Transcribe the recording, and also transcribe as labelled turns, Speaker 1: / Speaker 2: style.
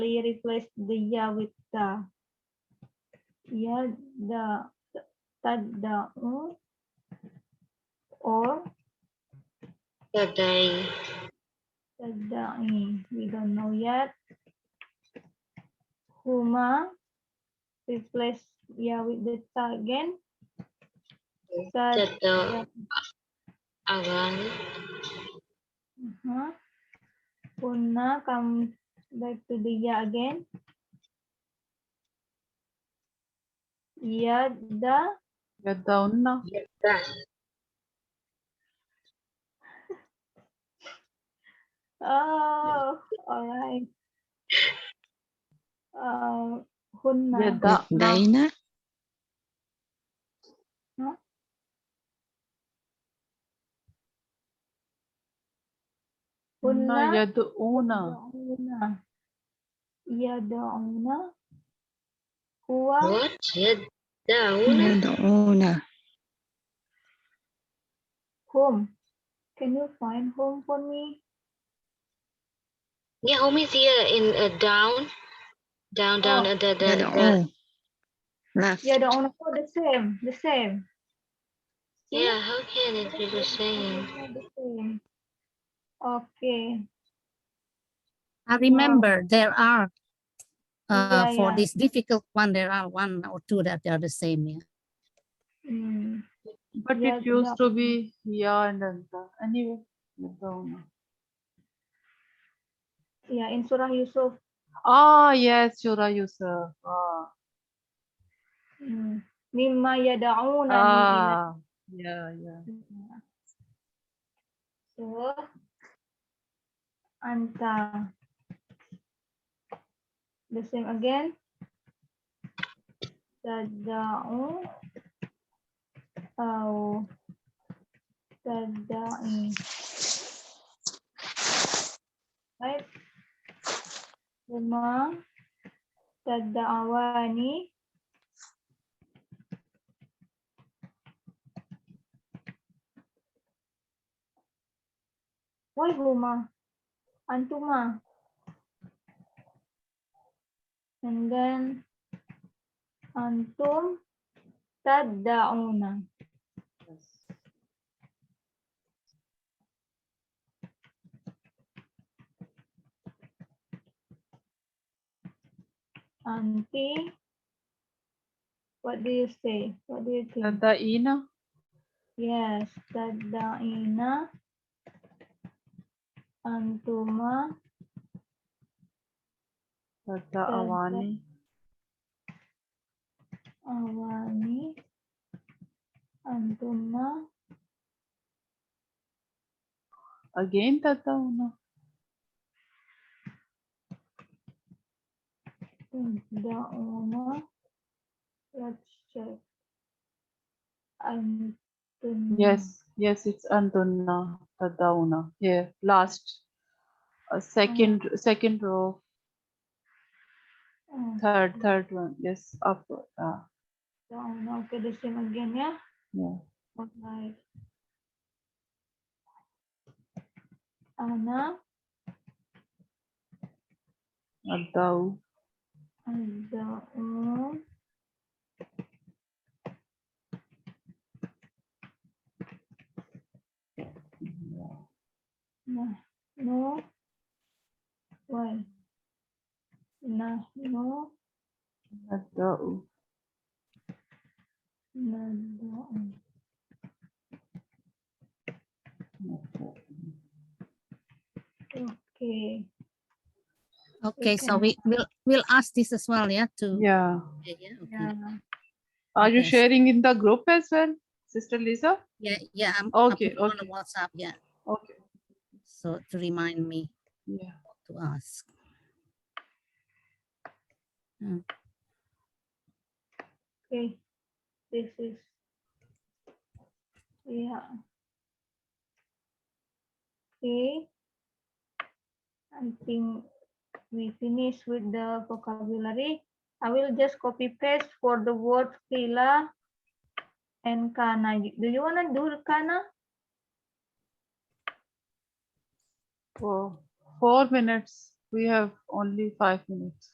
Speaker 1: we replace the ya with the. Ya, the, tada'u, or
Speaker 2: Today.
Speaker 1: tada'i. We don't know yet. Huma, replace ya with the ta again. Tad- ya,
Speaker 2: Jatuh. Awan.
Speaker 1: Uh-huh. Una come back to the ya again. Ya, Yada
Speaker 3: Yadauna.
Speaker 2: Jadan.
Speaker 1: oh all right. Uh Hunna
Speaker 3: Yada.
Speaker 4: Daina.
Speaker 3: Una.
Speaker 1: Hunna
Speaker 3: Yaduuna.
Speaker 1: Yadauna Yadauna Huwa
Speaker 2: What?
Speaker 5: Hmm.
Speaker 2: Jadaun.
Speaker 4: Yad'una.
Speaker 1: Hum. Can you find home for me?
Speaker 2: Yeah, home is here in uh, down. Down, down,
Speaker 1: Oh.
Speaker 2: uh, the, the, the,
Speaker 4: Yad'u. Left.
Speaker 1: Yadauna oh, the same, the same. See?
Speaker 2: yeah, how can it be the same?
Speaker 1: Okay.
Speaker 5: I
Speaker 2: Oh.
Speaker 5: remember there are uh,
Speaker 1: Yeah,
Speaker 5: for
Speaker 1: yeah.
Speaker 5: this difficult one, there are one or two that they are the same. Yeah.
Speaker 1: Mm.
Speaker 3: But it used to be ya and then ta. Anyway. Yadauna.
Speaker 1: Yeah, Ya, in Surah Yusuf.
Speaker 3: Ah, yes, Surah Yusuf. Ah,
Speaker 1: Mm. Mimma yada'una min
Speaker 3: ah. yeah, yeah.
Speaker 1: ila- So, anta. The same again. Tada'u. Au. Tada'i. Right? Huma. Tada'awani. Why Huma? Antuma. And then antum taddauna.
Speaker 3: Yes.
Speaker 1: Anti. What do you say? What do you think?
Speaker 3: Yadaina.
Speaker 1: Yes, taddaina. Antuma
Speaker 3: Yadaawani.
Speaker 1: awani. Antuma.
Speaker 3: Again, Tatauna.
Speaker 1: Taddauna. Let's check. Antuma.
Speaker 3: Yes, yes, it's Antuna, Tadauna. Yeah, last. Uh, second, second row,
Speaker 1: Oh,
Speaker 3: third, third one. Yes, up. Uh,
Speaker 1: taddauna. Okay, the same again, yeah?
Speaker 3: yeah.
Speaker 1: Alright. Ana
Speaker 3: Adau.
Speaker 1: adau nah no why nah no
Speaker 3: Adau.
Speaker 1: nadau okay
Speaker 5: Okay, so
Speaker 1: Okay.
Speaker 5: we will we'll ask this as well. Yeah. To
Speaker 3: Yeah.
Speaker 5: yeah. Yeah. okay.
Speaker 1: yeah
Speaker 3: Are you
Speaker 5: Yes.
Speaker 3: sharing in the group as well, Sister Lisa?
Speaker 5: yeah. yeah, I'm I
Speaker 3: Okay,
Speaker 5: put it on the
Speaker 3: okay.
Speaker 5: WhatsApp. Yeah.
Speaker 3: Okay.
Speaker 5: So to remind me
Speaker 3: Yeah.
Speaker 5: to ask. Mm,
Speaker 1: okay this is yeah okay i think we finish with the vocabulary i will just copy paste for the word fila and kana You- do you want to do kana
Speaker 3: For four minutes. We have only five minutes.